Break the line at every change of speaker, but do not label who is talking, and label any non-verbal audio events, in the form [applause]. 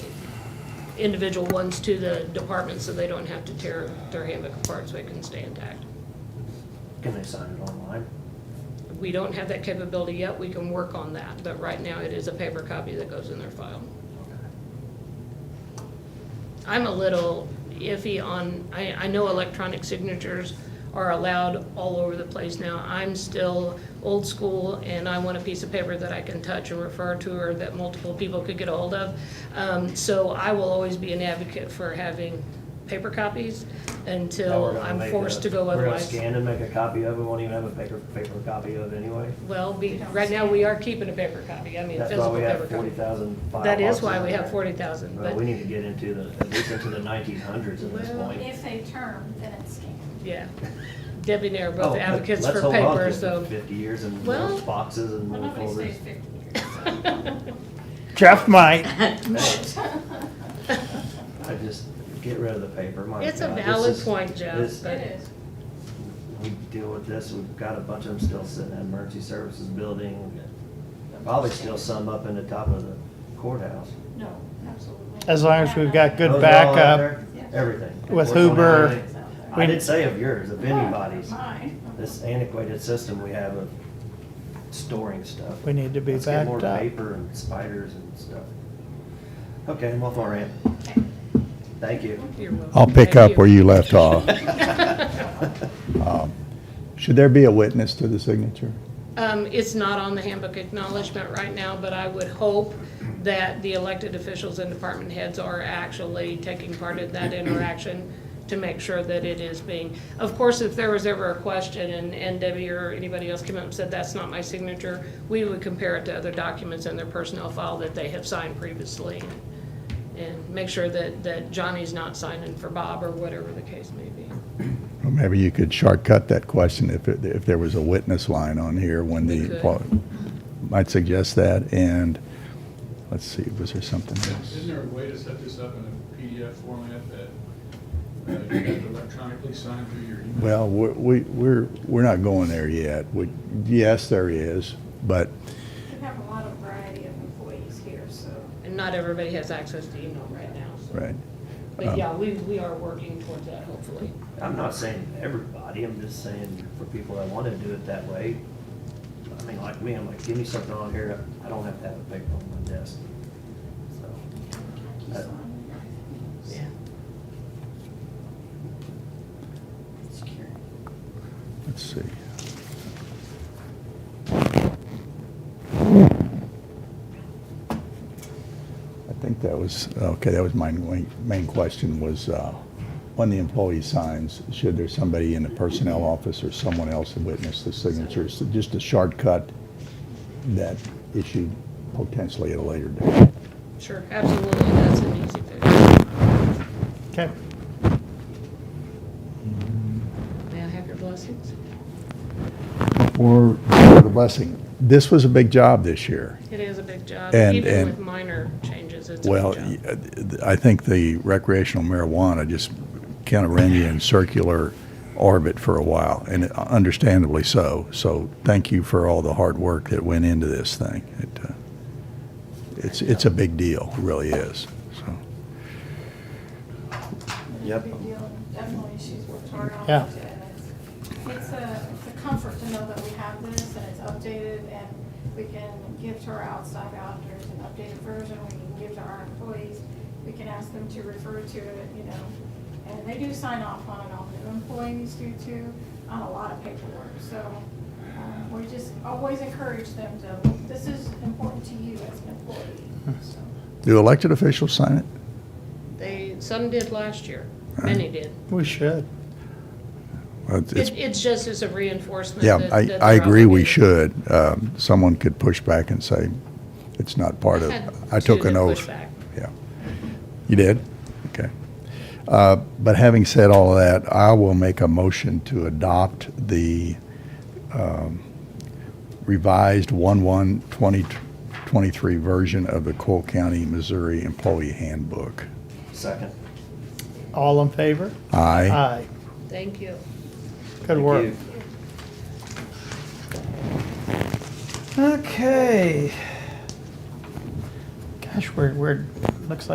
individual ones to the department so they don't have to tear their handbook apart so it can stay intact.
Can they sign it online?
We don't have that capability yet. We can work on that, but right now it is a paper copy that goes in their file. I'm a little iffy on, I, I know electronic signatures are allowed all over the place now. I'm still old school and I want a piece of paper that I can touch and refer to or that multiple people could get a hold of. Um, so I will always be an advocate for having paper copies
Now we're
until
gonna
I'm
make
forced
a-
to go
We're gonna
otherwise.
scan and make a copy of it, we won't even have a paper, paper copy of it anyway.
Well, be, right now we are keeping a paper copy. I mean,
That's
physical
why we
paper
have forty
copy.
thousand file
That is
boxes
why
in
we have
there.
forty thousand,
Well, we
but,
need to get into the, at least into the nineteen hundreds at this
Well,
point.
If they term, then it's scanned.
yeah. Debbie and I are
Oh,
both
but
advocates
let's
for
hold on to
paper,
it for
so.
Fifty years and
Well-
little boxes and
Well,
little
nobody stays
folders.
fifty years.
[laughs]
Jeff might.
I just, get rid of the paper, my God.
It's a
this
valid
is-
point, Jeff,
this-
so It is.
We deal with this, we've got a bunch of them still sitting in the emergency services building, and probably still some up in the top of the courthouse.
No, absolutely.
As long as we've got good
Those are all out
backup.
there, Everything.
With
Working on
Uber.
everything. I didn't say of yours, of anybody's.
Mine.
This antiquated system we have of storing stuff.
We need to be
Let's get more
backed up.
paper and spiders and stuff. Okay, I'm off my rant. Thank you.
You're welcome.
I'll pick
Thank
up where you
[laughs]
left off. Um, Should there be a witness to the signature?
Um, it's not on the handbook acknowledgement right now, but I would hope that the elected officials and department heads are actually taking part in that interaction to make sure that it is being, of course, if there was ever a question and, and Debbie or anybody else came up and said, that's not my signature, we would compare it to other documents in their personnel file that they have signed previously and make sure that, that Johnny's not signing for Bob or whatever the case may be.
Or Maybe you could shortcut that question if, it- if there was a witness line on here when
We
the,
could.
well, might suggest that, and, let's see, was there something else?
Isn't there a way to set this up in a PDF format that uh, you have to electronically sign through your email?
Well, we're- we, we're, we're not going there yet. We, yes, there is, but
We have a lot of variety of employees here, so.
And not everybody has access to email right now, so.
Right.
But
Um,
yeah, we, we are working towards that, hopefully.
I'm not saying everybody, I'm just saying for people that want to do it that way. I mean, like me, I'm like, give me something on here, I don't have to have a paper on my desk. So, uh,
Keys on.
Yeah.
Secure.
Let's see. I think that was, okay, that was my main main question was, uh, on the employee signs, should there somebody in the personnel office or someone else witness the signatures? So Just a shortcut that issue potentially at a later date.
Sure, absolutely, that's an easy fix.
Okay.
May I have your blessings?
For the blessing, this was a big job this year.
It is a big job,
And-
even
and-
with minor changes, it's a
Well,
big job.
y- uh, I think the recreational marijuana just kind of ran you in circular orbit for a while, and uh, understandably so. So thank you for all the hard work that went into this thing. It, uh, It's, it's a big deal, it really is, so.
Yep.
Big deal. Definitely, she's worked hard on it.
Yeah.
and it's- It's a, it's a comfort to know that we have this and it's updated and we can give to our outside auditors an updated version. We can give to our employees. We can ask them to refer to it, you know. And they do sign off on it, all new employees do too, on a lot of paperwork. So um, we just always encourage them to, this is important to you as an employee, so.
Do elected officials sign it?
They, some did last year, many did.
We should.
Well, it's-
It,
it's-
it's just as a reinforcement
Yeah,
that-
I,
that
I
they're
agree we
obligated. [laughs]
should. Um, Someone could push back and say, it's not part of,
had
I took
two
an
that
oath.
pushed back.
Yeah. You did? Okay. Uh, But having said all of that, I will make a motion to adopt the um, revised 1/1/2023 version of the Cole County, Missouri Employee Handbook.
second.
All in favor?
Aye.
Aye.
Thank you.
Good
Thank
work.
you.
Okay. Gosh, we're, we're, looks like